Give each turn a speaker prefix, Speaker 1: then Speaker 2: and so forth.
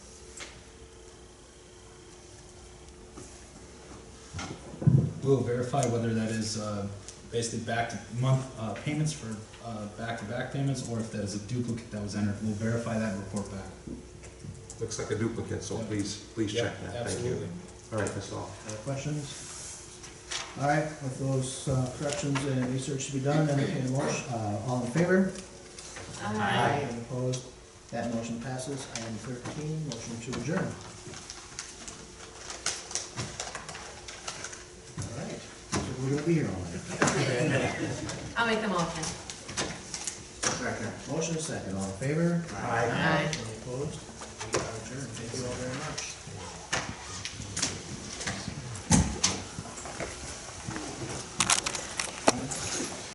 Speaker 1: we'll verify whether that is uh, basically back to month uh, payments for uh, back-to-back payments, or if that is a duplicate that was entered. We'll verify that and report back.
Speaker 2: Looks like a duplicate, so
Speaker 1: Yeah.
Speaker 2: please, please check
Speaker 1: Yeah,
Speaker 2: that, thank
Speaker 1: absolutely.
Speaker 2: you. All right, that's all.
Speaker 3: Other questions? All right, with those uh, corrections and research to be done, entertain a motion, uh, all in favor?
Speaker 4: Aye.
Speaker 3: Any Opposed? That motion passes. Item thirteen, motion to adjourn. All right, so we're gonna be here all night.
Speaker 4: I'll make the motion.
Speaker 3: Second. Motion is second, all in favor?
Speaker 4: Aye.
Speaker 3: Any opposed? We are adjourned. Thank you all very much.